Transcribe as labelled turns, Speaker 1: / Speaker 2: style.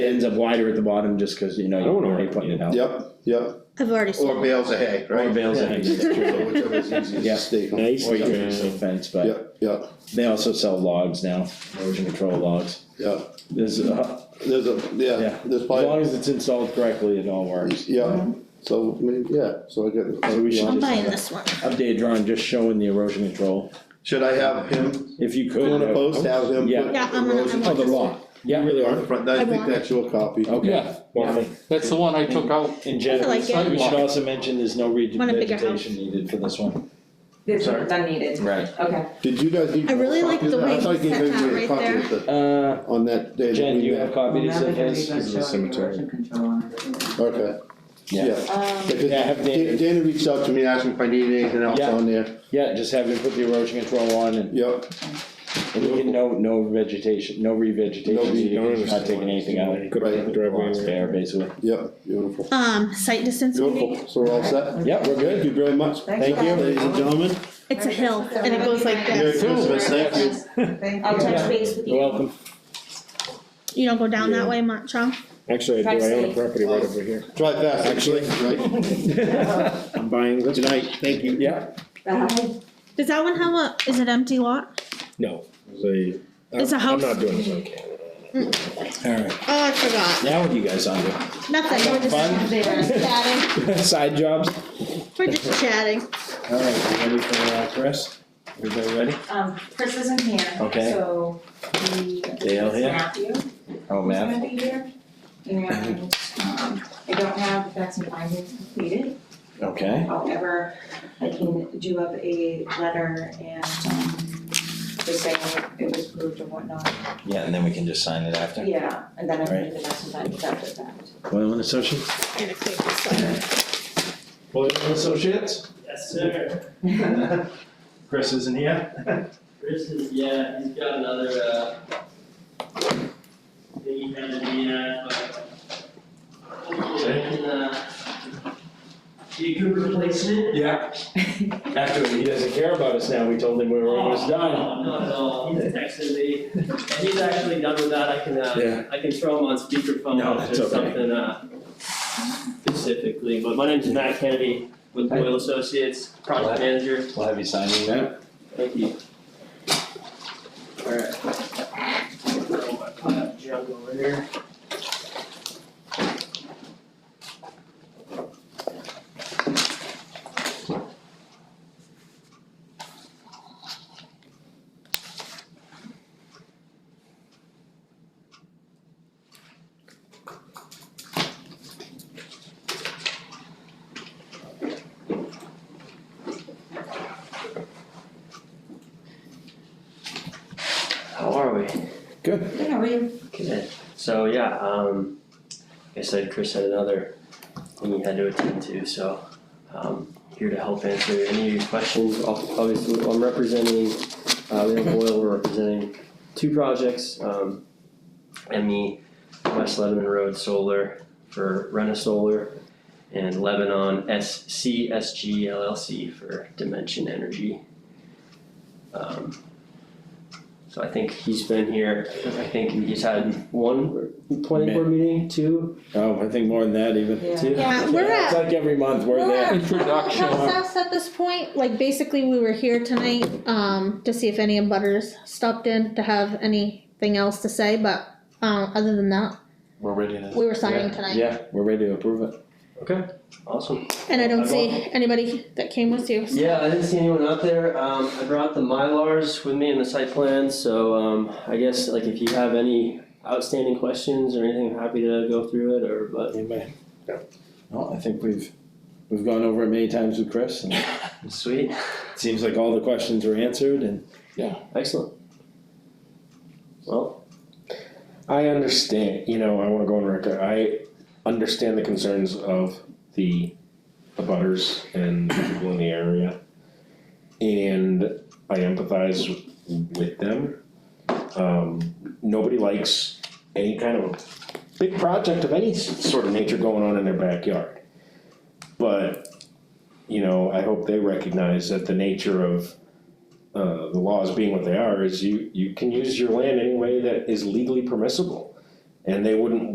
Speaker 1: It ends up wider at the bottom just cause you know,
Speaker 2: I
Speaker 1: you're
Speaker 2: don't know.
Speaker 1: already putting it out.
Speaker 3: Yep, yep,
Speaker 4: I've already sold.
Speaker 3: or bales of hay, right?
Speaker 1: Or bales of hay.
Speaker 3: So Whichever is easiest
Speaker 1: Yeah.
Speaker 3: to stake on.
Speaker 2: Nice.
Speaker 1: Or you can use a fence, but
Speaker 3: Yep, yep,
Speaker 1: they also sell logs now, erosion control logs.
Speaker 3: yep,
Speaker 1: There's, uh,
Speaker 3: there's a,
Speaker 1: yeah,
Speaker 3: yeah, there's
Speaker 1: as long
Speaker 3: probably,
Speaker 1: as it's installed correctly, it all works.
Speaker 3: yeah, so, I mean, yeah, so I get.
Speaker 1: So we should
Speaker 4: I'm
Speaker 1: just-
Speaker 4: buying this one.
Speaker 1: Updated drawing just showing the erosion control,
Speaker 3: Should I have him,
Speaker 1: if you could.
Speaker 3: put in a
Speaker 1: have-
Speaker 3: post, have him
Speaker 1: Yeah.
Speaker 3: put
Speaker 4: Yeah, I'm gonna-
Speaker 3: erosion
Speaker 4: I'm
Speaker 1: Oh, the lot, yeah, really
Speaker 3: on the
Speaker 1: are,
Speaker 3: front, I
Speaker 4: I
Speaker 3: think
Speaker 4: want it.
Speaker 3: that's your copy.
Speaker 1: okay.
Speaker 2: Yeah.
Speaker 5: That's the one I took out.
Speaker 1: In
Speaker 4: I
Speaker 1: general,
Speaker 4: like it.
Speaker 1: we should also mention there's no re-
Speaker 4: Want a bigger house.
Speaker 1: vegetation needed for this one.
Speaker 6: This one's unneeded,
Speaker 1: Right.
Speaker 6: okay.
Speaker 3: Did you guys need?
Speaker 4: I really
Speaker 3: a
Speaker 4: like
Speaker 3: copy of
Speaker 4: the
Speaker 3: that? I
Speaker 4: way
Speaker 3: thought
Speaker 4: he
Speaker 3: you
Speaker 4: set
Speaker 3: gave
Speaker 4: that
Speaker 3: me a
Speaker 4: right
Speaker 3: copy
Speaker 4: there.
Speaker 3: of the-
Speaker 1: Uh,
Speaker 3: On that day that
Speaker 1: Jen,
Speaker 3: we
Speaker 1: you have
Speaker 3: met,
Speaker 1: copies
Speaker 6: Well, now
Speaker 1: of
Speaker 6: they're
Speaker 1: this?
Speaker 6: gonna
Speaker 1: This is
Speaker 6: show
Speaker 1: the
Speaker 6: you
Speaker 1: cemetery.
Speaker 6: erosion control on it.
Speaker 3: okay,
Speaker 1: Yeah.
Speaker 3: yeah.
Speaker 6: Um,
Speaker 3: Because
Speaker 1: Yeah, have Dana-
Speaker 3: Dan- Dana reached out to me, asking if I needed anything else
Speaker 1: Yeah.
Speaker 3: on there,
Speaker 1: Yeah, just have him put the erosion control on and,
Speaker 3: yep,
Speaker 1: and you can no, no vegetation, no
Speaker 3: No
Speaker 1: revegetation
Speaker 3: re-
Speaker 1: needed, He's not taking anything out.
Speaker 2: Could
Speaker 3: Right.
Speaker 2: put the driveway
Speaker 1: It's
Speaker 2: in.
Speaker 1: Bare, basically.
Speaker 3: yep, beautiful,
Speaker 4: Um, site distance meeting,
Speaker 3: beautiful, so we're all set?
Speaker 1: Yeah, we're
Speaker 3: Thank
Speaker 1: good.
Speaker 3: you very much.
Speaker 6: Thank you.
Speaker 3: Ladies and gentlemen,
Speaker 4: it's a hill and it goes like
Speaker 3: Merry
Speaker 4: this.
Speaker 3: Christmas, thank you.
Speaker 6: Thank
Speaker 4: I'll
Speaker 6: you.
Speaker 4: touch base with
Speaker 1: You're
Speaker 4: you.
Speaker 1: welcome.
Speaker 4: You don't go down that way much, huh?
Speaker 2: Actually, I do, I own a property right over here.
Speaker 3: Drive fast, actually, right,
Speaker 2: I'm buying this.
Speaker 3: good night, thank you.
Speaker 1: Yeah,
Speaker 6: Bye.
Speaker 4: Does that one have a, is it empty lot?
Speaker 2: No, it's a.
Speaker 4: It's a
Speaker 2: I'm-
Speaker 4: house.
Speaker 2: I'm not doing this on camera.
Speaker 1: alright.
Speaker 4: Oh, I forgot.
Speaker 1: Now what you guys on to?
Speaker 4: Nothing, we're
Speaker 1: Fun?
Speaker 4: just chatting.
Speaker 1: Side jobs?
Speaker 4: We're just chatting.
Speaker 1: Alright, ready for uh, Chris? Everybody ready?
Speaker 6: Um, Chris isn't here,
Speaker 1: Okay.
Speaker 6: so we.
Speaker 1: Dale here?
Speaker 6: Matthew is
Speaker 1: Oh,
Speaker 6: gonna be here, and, um, I don't have the facts and findings completed,
Speaker 1: Okay.
Speaker 6: however, I can do up a letter and, um, just saying it was approved and whatnot,
Speaker 1: Yeah, and then we can just sign it after.
Speaker 6: yeah, and then I can do the facts and findings after that.
Speaker 1: Boylan Associates?
Speaker 4: Gonna click this letter.
Speaker 1: Boylan Associates?
Speaker 7: Yes, sir.
Speaker 1: Chris isn't here.
Speaker 7: Chris is, yeah, he's got another, uh, thing he handed me, uh, but hopefully I can, uh, be a good replacement.
Speaker 1: Yeah. After, he doesn't care about us now, we told him we were almost done.
Speaker 7: No, Not at all, he's texted me, and he's actually done with that, I can,
Speaker 1: Yeah.
Speaker 7: uh, I can throw him on speakerphone
Speaker 1: No,
Speaker 7: if
Speaker 1: that's
Speaker 7: there's
Speaker 1: okay.
Speaker 7: something, uh, specifically, but my name's Matt Kennedy with Boyle Associates,
Speaker 1: Glad-
Speaker 7: project manager.
Speaker 1: We'll have you signing that.
Speaker 7: Thank you. Alright. Throw my pile of junk over here. How are we?
Speaker 1: Good.
Speaker 6: Yeah, we,
Speaker 7: Good. So yeah, um, like I said, Chris had another thing he had to attend to, so, um, here to help answer any of your questions. Ob- Obviously, I'm representing, uh, Leon Boyle, we're representing two projects, um, and the West Lebanon Road Solar for Rena Solar and Lebanon SCSG LLC for Dimension Energy. Um, so I think he's been here, I think he's had one planning board meeting, two,
Speaker 1: Oh, I think more than that even.
Speaker 6: yeah.
Speaker 7: two.
Speaker 4: Yeah, we're
Speaker 1: It's
Speaker 4: at-
Speaker 1: like every month, we're
Speaker 4: we're
Speaker 1: there.
Speaker 4: at-
Speaker 5: Introduction.
Speaker 4: Process at this point, like basically we were here tonight, um, to see if any of butters stopped in to have anything else to say, but, um, other than that,
Speaker 1: We're ready to.
Speaker 4: we were signing tonight.
Speaker 1: Yeah, we're ready to approve it.
Speaker 7: Okay, awesome.
Speaker 4: And I don't
Speaker 7: I
Speaker 4: see anybody that came with you.
Speaker 7: Yeah, I didn't see anyone out there. Um, I brought the Mylars with me and the site plan, so, um, I guess like if you have any outstanding questions or anything, I'm happy to go through it or, but.
Speaker 1: Anybody? No, I think we've, we've gone over it many times with Chris and it
Speaker 7: Sweet,
Speaker 1: seems like all the questions were answered and.
Speaker 7: excellent. Well,
Speaker 2: I understand, you know, I wanna go on record, I understand the concerns of the abutters and the people in the area. And I empathize with them. Um, nobody likes any kind of big project of any s- sort of nature going on in their backyard. But, you know, I hope they recognize that the nature of uh, the laws being what they are, is you, you can use your land any way that is legally permissible. And they wouldn't